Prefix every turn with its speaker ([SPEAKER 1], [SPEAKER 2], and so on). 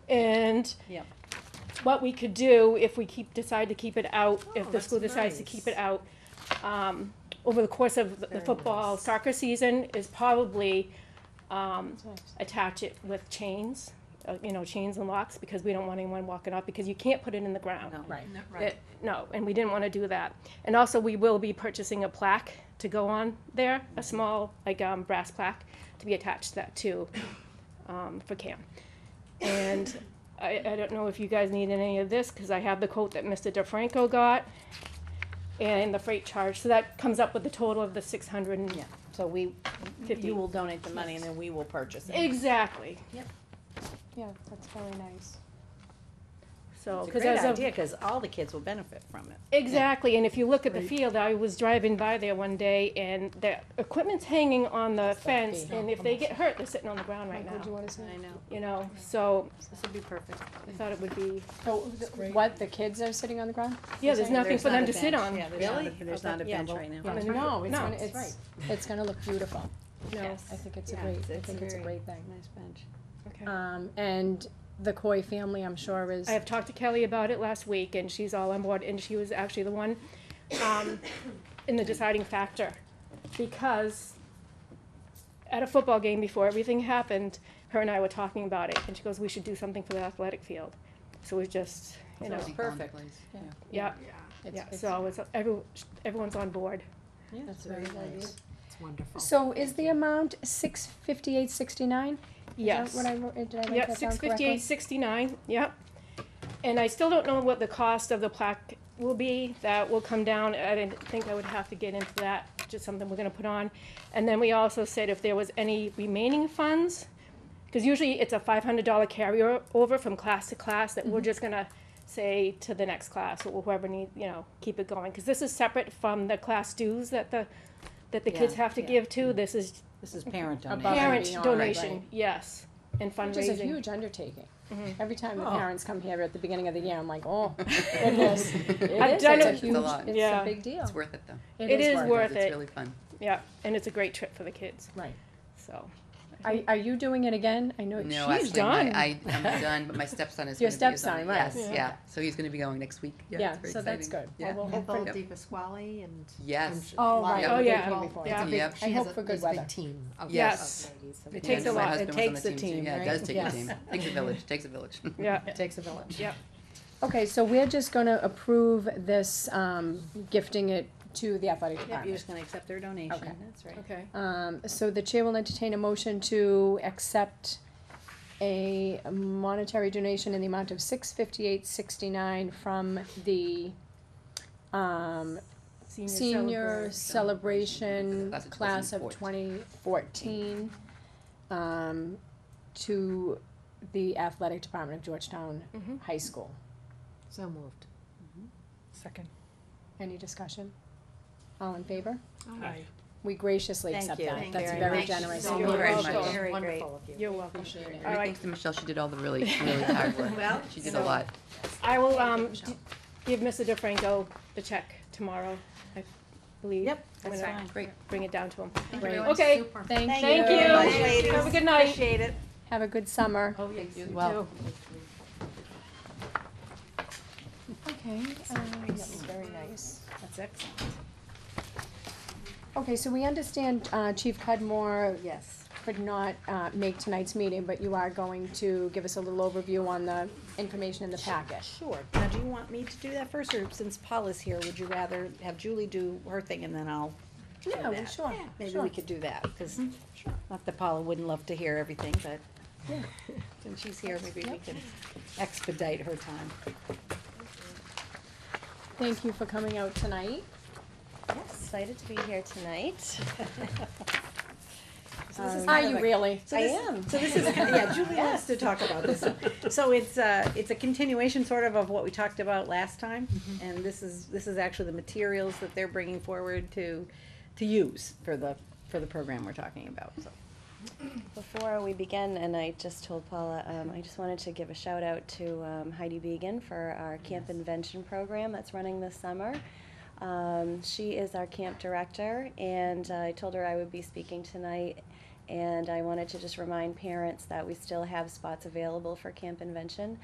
[SPEAKER 1] and
[SPEAKER 2] Yep.
[SPEAKER 1] what we could do if we keep, decide to keep it out,
[SPEAKER 2] Oh,
[SPEAKER 1] if the school
[SPEAKER 2] that's
[SPEAKER 1] decides to
[SPEAKER 2] nice.
[SPEAKER 1] keep it out, um, over the course of the- the
[SPEAKER 2] Very
[SPEAKER 1] football
[SPEAKER 2] nice.
[SPEAKER 1] soccer season is probably, um, attach it with chains, uh, you know, chains and locks, because we don't want anyone walking up, because you can't put it in the ground.
[SPEAKER 2] Right.
[SPEAKER 1] It- No, and we didn't want to do that. And also, we will be purchasing a plaque to go on there, a small, like, um, brass plaque to be attached to that too, um, for Cam. And I, I don't know if you guys need any of this, because I have the quote that Mr. DeFranco got and the freight charge, so that comes up with the total of the six hundred and,
[SPEAKER 2] Yeah. So we,
[SPEAKER 1] Fifty.
[SPEAKER 2] you will donate the money and then we will purchase it.
[SPEAKER 1] exactly,
[SPEAKER 3] Yeah, that's very nice.
[SPEAKER 1] so.
[SPEAKER 2] It's a
[SPEAKER 1] 'cause
[SPEAKER 2] great
[SPEAKER 1] as of-
[SPEAKER 2] idea, because all the kids will benefit from it.
[SPEAKER 1] Exactly, and if you look at the field, I was driving by there one day, and the equipment's hanging on the fence,
[SPEAKER 2] fee.
[SPEAKER 1] and if they get hurt, they're sitting on the ground right
[SPEAKER 3] Mike, would you
[SPEAKER 1] now,
[SPEAKER 3] wanna say?
[SPEAKER 2] I know,
[SPEAKER 1] you know, so
[SPEAKER 2] this would be perfect.
[SPEAKER 1] I thought it would be,
[SPEAKER 3] So, th- what, Oh, the kids are sitting on the ground?
[SPEAKER 1] yeah, there's
[SPEAKER 3] saying
[SPEAKER 1] nothing for them to sit on.
[SPEAKER 2] Yeah, there's
[SPEAKER 4] Really?
[SPEAKER 2] not, a- there's not a
[SPEAKER 4] Okay, yeah,
[SPEAKER 2] bench
[SPEAKER 4] well,
[SPEAKER 2] right now.
[SPEAKER 1] yeah.
[SPEAKER 3] No,
[SPEAKER 1] It's
[SPEAKER 3] it's, gonna-
[SPEAKER 1] no,
[SPEAKER 3] it's, it's gonna look beautiful.
[SPEAKER 1] No,
[SPEAKER 3] I think it's a
[SPEAKER 2] Yeah,
[SPEAKER 3] great,
[SPEAKER 2] it's-
[SPEAKER 3] I
[SPEAKER 2] it's
[SPEAKER 3] think it's a
[SPEAKER 2] very-
[SPEAKER 3] great thing.
[SPEAKER 2] Nice bench.
[SPEAKER 1] okay.
[SPEAKER 3] Um, and the Coy family, I'm sure, is,
[SPEAKER 1] I have talked to Kelly about it last week, and she's all on board, and she was actually the one, um, in the deciding factor. Because at a football game before everything happened, her and I were talking about it, and she goes, we should do something for the athletic field. So we just, you know,
[SPEAKER 2] Sounds perfect.
[SPEAKER 1] yeah,
[SPEAKER 3] it's,
[SPEAKER 1] yeah,
[SPEAKER 3] it's,
[SPEAKER 1] so it's, every, everyone's on board.
[SPEAKER 2] Yeah,
[SPEAKER 3] that's
[SPEAKER 2] it's
[SPEAKER 3] very
[SPEAKER 2] very
[SPEAKER 3] nice.
[SPEAKER 2] nice.
[SPEAKER 4] It's wonderful.
[SPEAKER 3] So is the amount six fifty-eight sixty-nine?
[SPEAKER 1] Yes.
[SPEAKER 3] What I, wrote- did I write
[SPEAKER 1] Yep,
[SPEAKER 3] that down
[SPEAKER 1] six
[SPEAKER 3] correctly?
[SPEAKER 1] fifty-eight, sixty-nine, yep. And I still don't know what the cost of the plaque will be, that will come down, I didn't think I would have to get into that, just something we're gonna put on. And then we also said if there was any remaining funds, because usually it's a five hundred dollar carryover from class to class, that
[SPEAKER 3] Mm-hmm.
[SPEAKER 1] we're just gonna say to the next class, or whoever need, you know, keep it going, because this is separate from the class dues that the, that the kids
[SPEAKER 2] Yeah,
[SPEAKER 1] have to
[SPEAKER 2] yeah.
[SPEAKER 1] give to, this is
[SPEAKER 2] This is parent donation.
[SPEAKER 3] Above and
[SPEAKER 1] parent
[SPEAKER 3] beyond, right.
[SPEAKER 1] donation, yes, and fundraising.
[SPEAKER 3] Which is a huge undertaking.
[SPEAKER 1] Mm-hmm.
[SPEAKER 3] Every time the
[SPEAKER 2] Oh.
[SPEAKER 3] parents come here at the beginning of the year, I'm like, oh, goodness.
[SPEAKER 1] I've
[SPEAKER 3] It is,
[SPEAKER 1] done
[SPEAKER 3] it's a
[SPEAKER 1] it-
[SPEAKER 4] It's a
[SPEAKER 3] huge,
[SPEAKER 4] lot.
[SPEAKER 3] it's a
[SPEAKER 1] Yeah.
[SPEAKER 3] big deal.
[SPEAKER 4] It's worth it though.
[SPEAKER 1] It is
[SPEAKER 3] worth
[SPEAKER 1] worth it.
[SPEAKER 4] It's really fun.
[SPEAKER 1] Yeah, and it's a great trip for the kids.
[SPEAKER 3] Right.
[SPEAKER 1] So
[SPEAKER 3] Are, are you doing it again? I know
[SPEAKER 4] No,
[SPEAKER 1] she's
[SPEAKER 4] actually, my-
[SPEAKER 1] done.
[SPEAKER 4] I, I'm done, but my stepson is
[SPEAKER 3] Your
[SPEAKER 4] gonna be. his
[SPEAKER 3] stepson,
[SPEAKER 4] own-
[SPEAKER 3] right.
[SPEAKER 4] Yes,
[SPEAKER 1] Yeah.
[SPEAKER 4] yeah, so he's gonna be going next week.
[SPEAKER 3] Yeah,
[SPEAKER 4] it's very
[SPEAKER 3] so that's
[SPEAKER 4] exciting.
[SPEAKER 3] good.
[SPEAKER 4] Yeah.
[SPEAKER 3] Well, we'll hope
[SPEAKER 5] Ethel
[SPEAKER 3] for-
[SPEAKER 5] Di Pasquale and.
[SPEAKER 4] Yes.
[SPEAKER 3] Oh,
[SPEAKER 5] Lot
[SPEAKER 3] right.
[SPEAKER 1] of
[SPEAKER 3] Oh, yeah.
[SPEAKER 5] people.
[SPEAKER 3] Before.
[SPEAKER 1] Yeah.
[SPEAKER 3] It's a big-
[SPEAKER 4] Yep.
[SPEAKER 3] I hope for good
[SPEAKER 6] It's a
[SPEAKER 3] weather.
[SPEAKER 6] big team of- of
[SPEAKER 1] Yes.
[SPEAKER 6] ladies.
[SPEAKER 1] It
[SPEAKER 4] Yeah,
[SPEAKER 1] takes
[SPEAKER 4] so
[SPEAKER 1] a
[SPEAKER 4] my
[SPEAKER 1] lot. It
[SPEAKER 4] husband was on
[SPEAKER 3] takes
[SPEAKER 4] the
[SPEAKER 3] a
[SPEAKER 4] too.
[SPEAKER 3] team,
[SPEAKER 4] Yeah,
[SPEAKER 3] right?
[SPEAKER 4] it does take a
[SPEAKER 3] Yes.
[SPEAKER 4] team. Takes a village, takes a village.
[SPEAKER 1] yeah,
[SPEAKER 6] It takes a village.
[SPEAKER 1] yeah,
[SPEAKER 3] Okay, so we're just gonna approve this, um, gifting it to the athletic
[SPEAKER 2] Yep, you're
[SPEAKER 3] department.
[SPEAKER 2] just gonna accept their
[SPEAKER 3] Okay.
[SPEAKER 2] donation, that's right.
[SPEAKER 1] okay.
[SPEAKER 3] Um, so the chair will entertain a motion to accept a monetary donation in the amount of six fifty-eight sixty-nine from the, um, senior celebration
[SPEAKER 4] Class of
[SPEAKER 3] class of twenty fourteen, um, to the athletic department of Georgetown
[SPEAKER 1] Mhm.
[SPEAKER 2] Mm-hmm.
[SPEAKER 3] High School.
[SPEAKER 6] So moved. Second.
[SPEAKER 3] Any discussion? All in favor?
[SPEAKER 6] Aye.
[SPEAKER 3] We graciously
[SPEAKER 2] Thank
[SPEAKER 3] accept
[SPEAKER 2] you.
[SPEAKER 3] that.
[SPEAKER 2] Thank
[SPEAKER 3] That's
[SPEAKER 2] you.
[SPEAKER 3] very
[SPEAKER 2] Thank you
[SPEAKER 3] generous.
[SPEAKER 2] so
[SPEAKER 3] of you.
[SPEAKER 1] much. Very
[SPEAKER 4] much.
[SPEAKER 2] Very great.
[SPEAKER 6] Wonderful of you.
[SPEAKER 1] You're welcome.
[SPEAKER 3] Appreciate it.
[SPEAKER 1] All
[SPEAKER 4] And
[SPEAKER 1] right,
[SPEAKER 4] thanks to Michelle, she did all the really, really hard work.
[SPEAKER 2] Well,
[SPEAKER 4] She did a
[SPEAKER 2] so-
[SPEAKER 4] lot.
[SPEAKER 1] I will um
[SPEAKER 4] Michelle.
[SPEAKER 1] d- give Mr. DeFranco the check tomorrow. I believe.
[SPEAKER 2] Yep,
[SPEAKER 1] when
[SPEAKER 2] that's
[SPEAKER 1] I
[SPEAKER 2] fine.
[SPEAKER 4] Great.
[SPEAKER 1] Bring it down to him.
[SPEAKER 3] Great.
[SPEAKER 1] Okay.
[SPEAKER 3] Thank you.
[SPEAKER 1] Thank
[SPEAKER 2] Thank you.
[SPEAKER 1] you. Have a good night.
[SPEAKER 2] Appreciate it.
[SPEAKER 3] Have a good summer.
[SPEAKER 1] Oh, yes, you
[SPEAKER 4] well.
[SPEAKER 3] Okay, um, that was very nice.
[SPEAKER 2] That's excellent.
[SPEAKER 3] Okay, so we understand, uh, Chief Cudmore
[SPEAKER 2] Yes.
[SPEAKER 3] could not, uh, make tonight's meeting, but you are going to give us a little overview on the information in the packet.
[SPEAKER 2] Sure. Now, do you want me to do that first, or since Paula's here, would you rather have Julie do her thing and then I'll do
[SPEAKER 3] Yeah, well,
[SPEAKER 2] that?
[SPEAKER 3] sure,
[SPEAKER 2] Yeah, Maybe
[SPEAKER 3] sure.
[SPEAKER 2] we could do that, because, not that Paula wouldn't love to hear everything, but since she's here, maybe we can expedite her time.
[SPEAKER 3] Thank you for coming out tonight.
[SPEAKER 7] Yes, excited to be here tonight.
[SPEAKER 2] So this is
[SPEAKER 3] Um, Are
[SPEAKER 2] kind of
[SPEAKER 3] you
[SPEAKER 2] a-
[SPEAKER 3] really?
[SPEAKER 2] So this- So this is, yeah, Julie wants to talk about this. So it's a, it's a continuation sort of of what we talked about last time. And this is, this is actually the materials that they're bringing forward to, to use for the, for the program we're talking about, so.
[SPEAKER 7] Before we begin, and I just told Paula, um, I just wanted to give a shout out to um, Heidi Began for our camp invention program that's running this summer. uh, Um, she is our camp director, and I told her I would be speaking tonight. And I wanted to just remind parents that we still have spots available for Camp Invention.